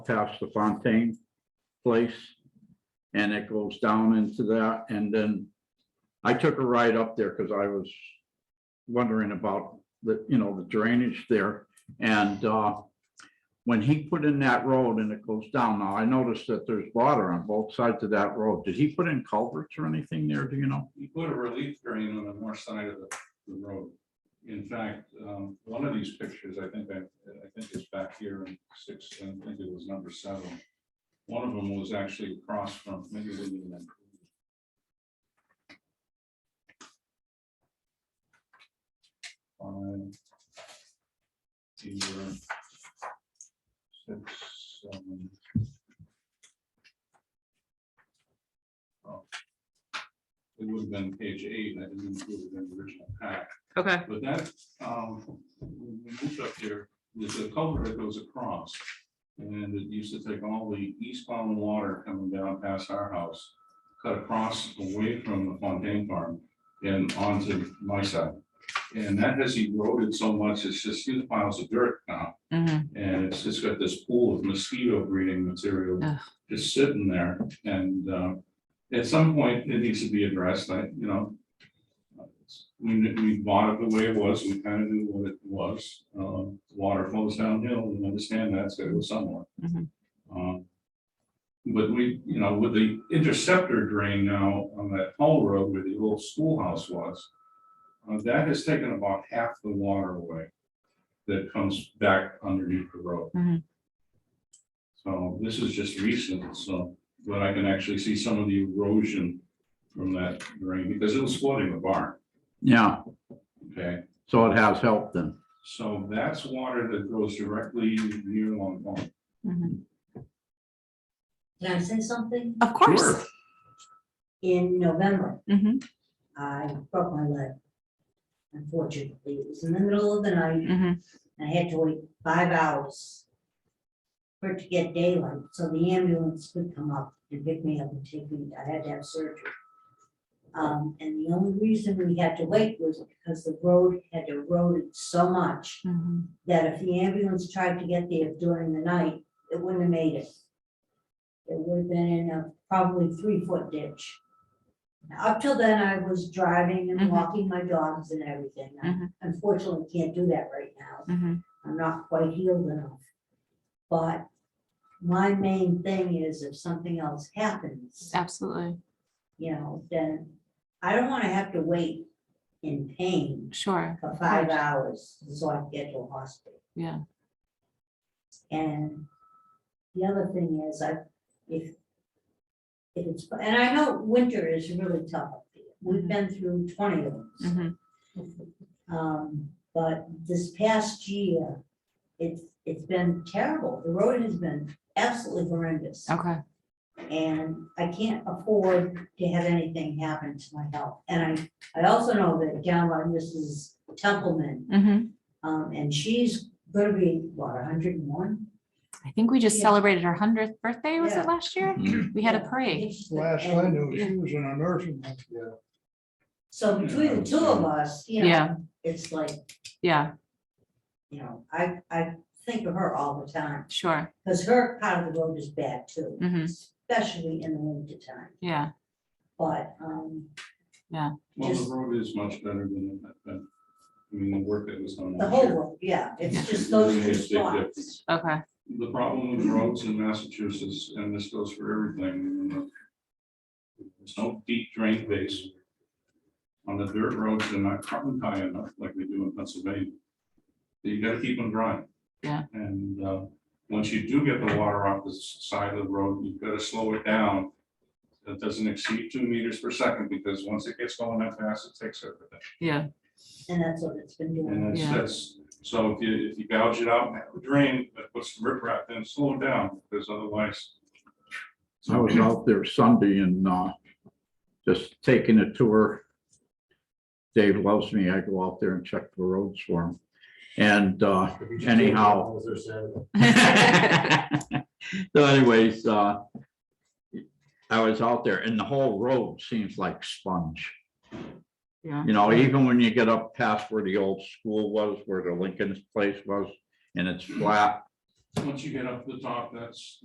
past the Fontaine place. And it goes down into that and then I took a ride up there because I was wondering about the, you know, the drainage there. And uh, when he put in that road and it goes down, now I noticed that there's water on both sides of that road. Did he put in culverts or anything there? Do you know? You put a relief drain on the north side of the, the road. In fact, um, one of these pictures, I think, I, I think it's back here in six, I think it was number seven. One of them was actually across from, maybe it wasn't even. Five. Either. Six, seven. It would have been page eight, I didn't include it in the original pack. Okay, But that, um, when we moved up there, there's a culvert that goes across. And it used to take all the eastbound water coming down past our house, cut across away from the Fontaine Farm and onto my side. And that has eroded so much, it's just huge piles of dirt now. mhm, And it's just got this pool of mosquito breeding material Ugh. just sitting there. And uh, at some point, it needs to be addressed, I, you know. We, kn- we bought it the way it was, we kind of knew what it was. Uh, Water flows downhill, we understand that, so it was somewhere. Mhm. Um, But we, you know, with the interceptor drain now on that Hall Road where the old schoolhouse was, uh, that has taken about half the water away that comes back underneath the road. Mm-hmm. Mhm. So this is just recent, so, but I can actually see some of the erosion from that drain, because it was flooding the barn, Yeah, okay? so it has helped then. So that's water that goes directly near Long Pond. mhm. Can I say something? Of course. In November, Mhm, I broke my leg. Unfortunately, it was in the middle of the night, mhm. and I had to wait five hours for it to get daylight, so the ambulance could come up and pick me up and take me, I had to have surgery. Um, and the only reason we had to wait was because the road had eroded so much mhm. that if the ambulance tried to get there during the night, it wouldn't have made it. It would have been in a probably three-foot ditch. Up till then, I was driving and Mhm. walking my dogs and everything. I Mhm. Unfortunately, can't do that right now. Mhm. I'm not quite healed enough. But my main thing is if something else happens, Absolutely, you know, then I don't want to have to wait in pain sure, for five hours so I can get to a hospital. yeah. And the other thing is, I, if, if it's, and I know winter is really tough. up here. We've been through twenty of them. mhm. Um, but this past year, it's, it's been terrible. The road has been absolutely horrendous. Okay, And I can't afford to have anything happen to my health. And I, I also know that down by Mrs. Templeman, mhm. um, and she's gonna be, what, hundred and one? I think we just Yeah. celebrated our hundredth birthday, was Yeah. it last year? Mm-hmm. We had a parade. Last I knew, she was in a nursing home. So between the two of us, you Yeah. know, it's like, Yeah, you know, I, I think of her all the time, sure, because her part of the road is bad too, Mhm. especially in the winter time, yeah, but, um, Well, Just- the road is much better than it had been. I mean, the work that was done. the last whole year. road, yeah, Yeah. it's just those Really two is big spots. difference. okay, The problem with roads in Massachusetts, and this goes for everything. you know, There's no deep drain base. On the dirt roads, they're not carbon high enough like we do in Pennsylvania. You gotta keep them dry. Yeah. And, uh, once you do get the water off the s- side of the road, you've gotta slow it down. That doesn't exceed two meters per second, because once it gets going that fast, it takes everything. yeah, And that's what it's been doing. And that's, Yeah. that's, so if you, if you gouge it out and have a drain, but put some riprap, then slow it down, because otherwise. I was out there Sunday and uh, just taking a tour. Dave loves me. I go out there and check the roads for him. And uh, Anyhow. so anyways, uh, I was out there and the whole road seems like sponge. yeah, You know, even when you get up past where the old school was, where the Lincoln's place was, and it's flat. once you get up to the top, that's,